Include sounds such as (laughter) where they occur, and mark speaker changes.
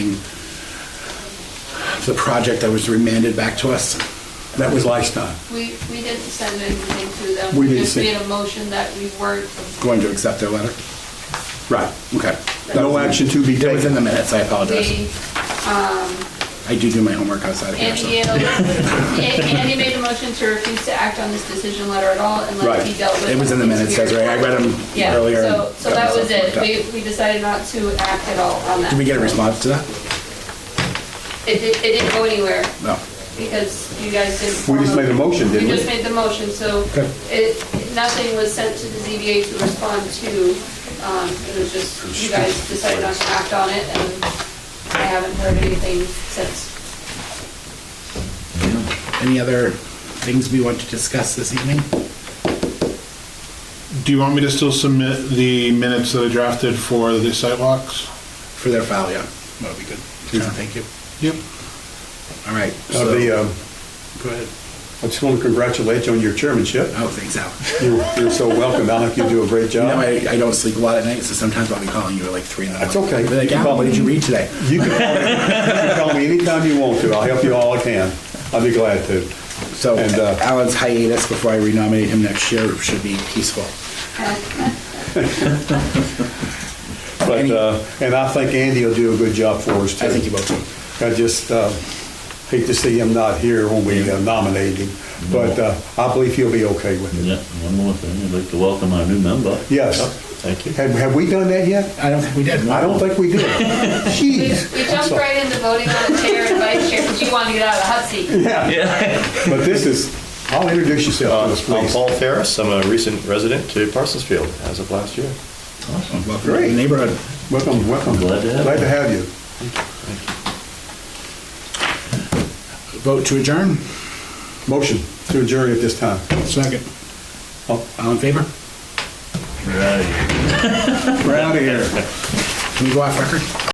Speaker 1: the project that was remanded back to us. That was last uh, time,
Speaker 2: We, we didn't send anything to them.
Speaker 1: We didn't send-
Speaker 2: just made a motion that we weren't.
Speaker 1: going to accept their letter. Right, okay. No action to be taken. That was in the minutes, I apologize.
Speaker 2: We,
Speaker 1: I do do my homework outside of here, so.
Speaker 2: Andy, Andy made a motion to refuse to act on this decision letter at all and let
Speaker 1: Right.
Speaker 2: it be dealt with.
Speaker 1: It was in the
Speaker 2: in
Speaker 1: minutes, that's right. I read them
Speaker 2: Yeah,
Speaker 1: earlier. and
Speaker 2: so, so
Speaker 1: got
Speaker 2: that was
Speaker 1: myself
Speaker 2: it.
Speaker 1: worked up.
Speaker 2: We, we decided not to act at all on that.
Speaker 1: Did we get a response to that?
Speaker 2: It did, it didn't go anywhere
Speaker 1: No.
Speaker 2: because you guys didn't.
Speaker 3: We just made a motion, didn't
Speaker 2: You
Speaker 3: we?
Speaker 2: just made the motion, so
Speaker 1: Okay.
Speaker 2: it, nothing was sent to the ZBA to respond to. Um, It was just, you guys decided not to act on it, and I haven't heard anything since. (laughs)
Speaker 1: Any other things we want to discuss this evening?
Speaker 4: Do you want me to still submit the minutes that I drafted for the sidewalks?
Speaker 1: For their file, yeah. That would be good. Sure, thank you.
Speaker 4: Yep.
Speaker 1: All right.
Speaker 3: Uh,
Speaker 1: so-
Speaker 3: the, um,
Speaker 1: Go ahead.
Speaker 3: I just want to congratulate you on your chairmanship.
Speaker 1: Oh, thanks, Al.
Speaker 3: You're you're so welcome, Alec, you do a great
Speaker 1: You know,
Speaker 3: job.
Speaker 1: I, I don't sleep a lot at night, so sometimes I'll be calling you at like three in the morning.
Speaker 3: That's okay.
Speaker 1: Be Like, Al, what did you read today?
Speaker 3: You can call me- you can call me anytime you want to, I'll help you all I can. I'll be glad to.
Speaker 1: So
Speaker 3: And, uh,
Speaker 1: Alan's hiatus before I renominate him next year should be peaceful.
Speaker 3: But,
Speaker 1: Any-
Speaker 3: uh, and I think Andy will do a good job for us, too.
Speaker 1: I think you both do.
Speaker 3: I just uh, hate to see him not here when we uh, nominate him, but uh, I believe he'll be okay with it.
Speaker 5: Yeah, one more thing, I'd like to welcome our new member.
Speaker 3: Yes.
Speaker 5: Thank you.
Speaker 3: Have, have we done that yet?
Speaker 1: I don't think we did.
Speaker 3: I don't think
Speaker 1: (laughs)
Speaker 3: we did.
Speaker 2: We
Speaker 3: Jeez.
Speaker 2: we jumped right into voting on the chair and vice chair, because you wanted to get out of the hot seat.
Speaker 3: But this is, I'll introduce yourself to us,
Speaker 1: Uh,
Speaker 6: Uh, I'm
Speaker 3: please.
Speaker 6: Paul Ferris, I'm a recent resident to Parsonsfield as of last year.
Speaker 1: Welcome to the neighborhood.
Speaker 3: Welcome, welcome.
Speaker 5: Glad to have
Speaker 3: Glad
Speaker 5: you.
Speaker 3: to have you.
Speaker 1: Vote to adjourn.
Speaker 3: Motion to adjourn at this time.
Speaker 1: Second.
Speaker 3: Oh.
Speaker 1: All all in favor?
Speaker 5: Right.
Speaker 3: We're out of here.
Speaker 1: Can we go off record?